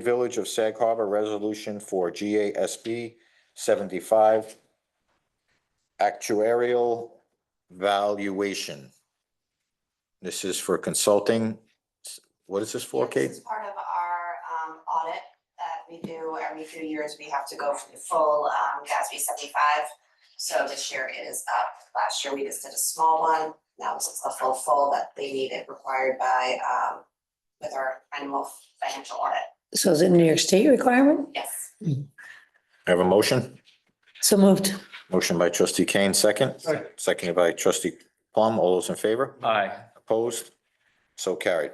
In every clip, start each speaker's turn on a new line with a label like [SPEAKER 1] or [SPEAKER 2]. [SPEAKER 1] Village of Sag Harbor Resolution for GASB seventy-five actuarial valuation. This is for consulting. What is this for, Kate?
[SPEAKER 2] This is part of our um audit that we do every few years. We have to go for the full um GASB seventy-five. So this year it is up. Last year we just did a small one. That was the full full that they needed required by um with our annual financial audit.
[SPEAKER 3] So is it New York State requirement?
[SPEAKER 2] Yes.
[SPEAKER 1] Have a motion?
[SPEAKER 3] So moved.
[SPEAKER 1] Motion by trustee Kane, second.
[SPEAKER 4] Second.
[SPEAKER 1] Seconded by trustee Plum. All those in favor?
[SPEAKER 4] Aye.
[SPEAKER 1] Opposed? So carried.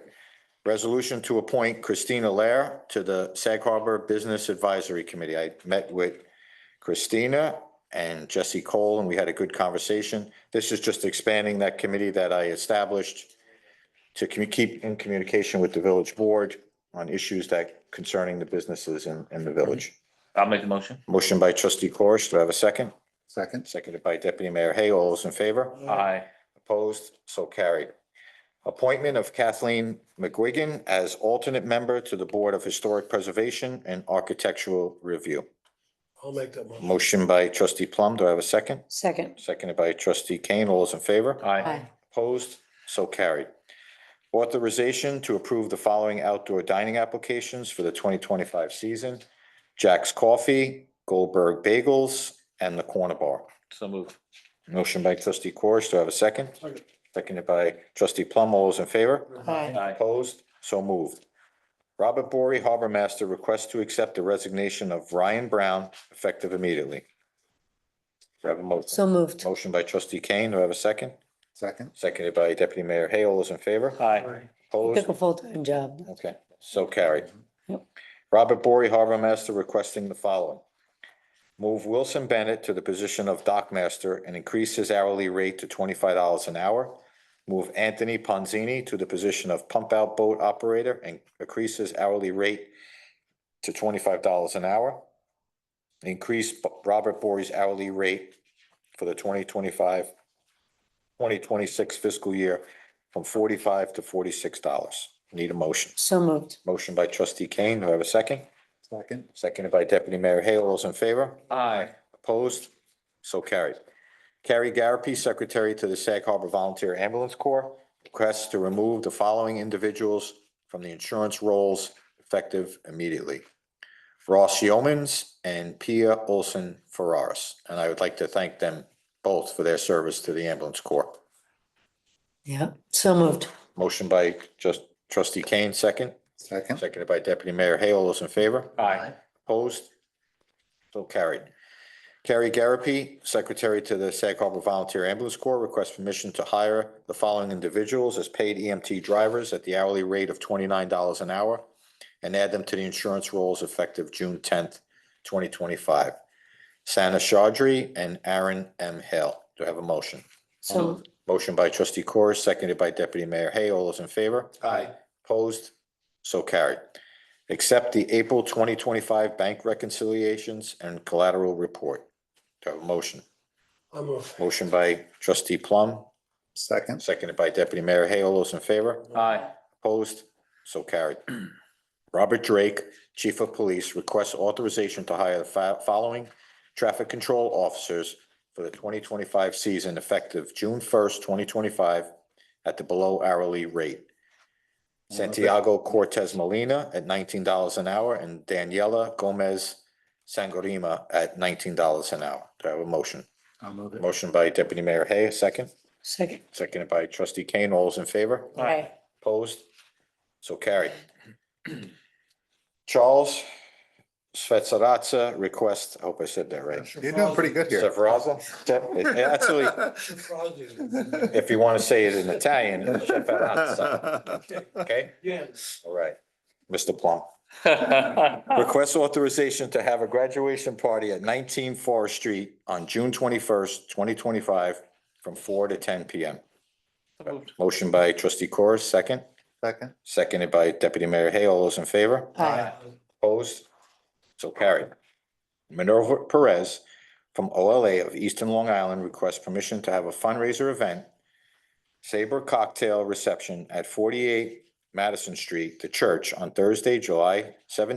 [SPEAKER 1] Resolution to appoint Christina Lair to the Sag Harbor Business Advisory Committee. I met with Christina and Jesse Cole, and we had a good conversation. This is just expanding that committee that I established to commu- keep in communication with the village board on issues that concerning the businesses in, in the village.
[SPEAKER 4] I'll make the motion.
[SPEAKER 1] Motion by trustee Corish. Do I have a second?
[SPEAKER 5] Second.
[SPEAKER 1] Seconded by deputy mayor Hay. All those in favor?
[SPEAKER 4] Aye.
[SPEAKER 1] Opposed, so carried. Appointment of Kathleen McGuigan as alternate member to the Board of Historic Preservation and Architectural Review.
[SPEAKER 6] I'll make that motion.
[SPEAKER 1] Motion by trustee Plum, do I have a second?
[SPEAKER 3] Second.
[SPEAKER 1] Seconded by trustee Kane, all those in favor?
[SPEAKER 4] Aye.
[SPEAKER 1] Opposed, so carried. Authorization to approve the following outdoor dining applications for the twenty twenty-five season. Jack's Coffee, Goldberg Bagels, and the Corner Bar.
[SPEAKER 4] So move.
[SPEAKER 1] Motion by trustee Corish, do I have a second?
[SPEAKER 6] Second.
[SPEAKER 1] Seconded by trustee Plum, all those in favor?
[SPEAKER 3] Aye.
[SPEAKER 4] Aye.
[SPEAKER 1] Opposed? So moved. Robert Bory, Harbor Master, requests to accept the resignation of Ryan Brown effective immediately. Do I have a motion?
[SPEAKER 3] So moved.
[SPEAKER 1] Motion by trustee Kane, do I have a second?
[SPEAKER 5] Second.
[SPEAKER 1] Seconded by deputy mayor Hay, all those in favor?
[SPEAKER 4] Aye.
[SPEAKER 1] Opposed?
[SPEAKER 3] Took a full-time job.
[SPEAKER 1] Okay, so carried.
[SPEAKER 3] Yep.
[SPEAKER 1] Robert Bory, Harbor Master, requesting the following. Move Wilson Bennett to the position of Dock Master and increase his hourly rate to twenty-five dollars an hour. Move Anthony Ponzini to the position of Pump Out Boat Operator and increase his hourly rate to twenty-five dollars an hour. Increase B- Robert Bory's hourly rate for the 2025-2026 fiscal year from forty-five to forty-six dollars. Need a motion.
[SPEAKER 3] So moved.
[SPEAKER 1] Motion by trustee Kane, do I have a second?
[SPEAKER 5] Second.
[SPEAKER 1] Seconded by deputy mayor Hale, all those in favor?
[SPEAKER 4] Aye.
[SPEAKER 1] Opposed? So carried. Carrie Garapi, secretary to the Sag Harbor Volunteer Ambulance Corps, requests to remove the following individuals from the insurance rolls effective immediately. Ross Yeomans and Pia Olson Ferraris, and I would like to thank them both for their service to the ambulance corps.
[SPEAKER 3] Yeah. So moved.
[SPEAKER 1] Motion by just trustee Kane, second,
[SPEAKER 5] Second.
[SPEAKER 1] seconded by deputy mayor Hale, all those in favor?
[SPEAKER 4] Aye.
[SPEAKER 1] Opposed? So carried. Carrie Garapi, Secretary to the Sag Harbor Volunteer Ambulance Corps, requests permission to hire the following individuals as paid EMT drivers at the hourly rate of twenty-nine dollars an hour and add them to the insurance rolls effective June tenth, twenty twenty-five. Sana Chaudry and Aaron M. Hale. Do I have a motion?
[SPEAKER 3] So moved.
[SPEAKER 1] Motion by trustee Corr, seconded by deputy mayor Hay. All those in favor?
[SPEAKER 4] Aye.
[SPEAKER 1] Opposed? So carried. Accept the April twenty twenty-five bank reconciliations and collateral report. Do I have a motion?
[SPEAKER 6] I'll move.
[SPEAKER 1] Motion by trustee Plum,
[SPEAKER 5] Second.
[SPEAKER 1] seconded by deputy mayor Hay. All those in favor?
[SPEAKER 4] Aye.
[SPEAKER 1] Opposed? So carried. Robert Drake, Chief of Police, requests authorization to hire the fo- following traffic control officers for the twenty twenty-five season effective June first, twenty twenty-five at the below hourly rate. Santiago Cortez Molina at nineteen dollars an hour and Daniela Gomez Sangorima at nineteen dollars an hour. Do I have a motion?
[SPEAKER 5] I'll move it.
[SPEAKER 1] Motion by Deputy Mayor Hay, a second,
[SPEAKER 3] Second.
[SPEAKER 1] seconded by trustee Kane. All those in favor?
[SPEAKER 4] Aye.
[SPEAKER 1] Opposed? So carried. Charles Svetsaratsa requests, I hope I said that right.
[SPEAKER 5] You're doing pretty good here.
[SPEAKER 1] Svetsaratsa? Yeah, Actually, if you want to say it in Italian, Svetsaratsa, okay?
[SPEAKER 6] Yes.
[SPEAKER 1] All right. Mr. Plum.
[SPEAKER 4] Aye.
[SPEAKER 1] Request authorization to have a graduation party at nineteen Forest Street on June twenty-first, twenty twenty-five from four to ten P M. Motion by trustee Corr, second,
[SPEAKER 5] Second.
[SPEAKER 1] seconded by deputy mayor Hay. All those in favor?
[SPEAKER 3] Aye.
[SPEAKER 1] Opposed? So carried. Minerva Perez from OLA of Eastern Long Island requests permission to have a fundraiser event, Saber Cocktail Reception at forty-eight Madison Street, the church, on Thursday, July seventeenth,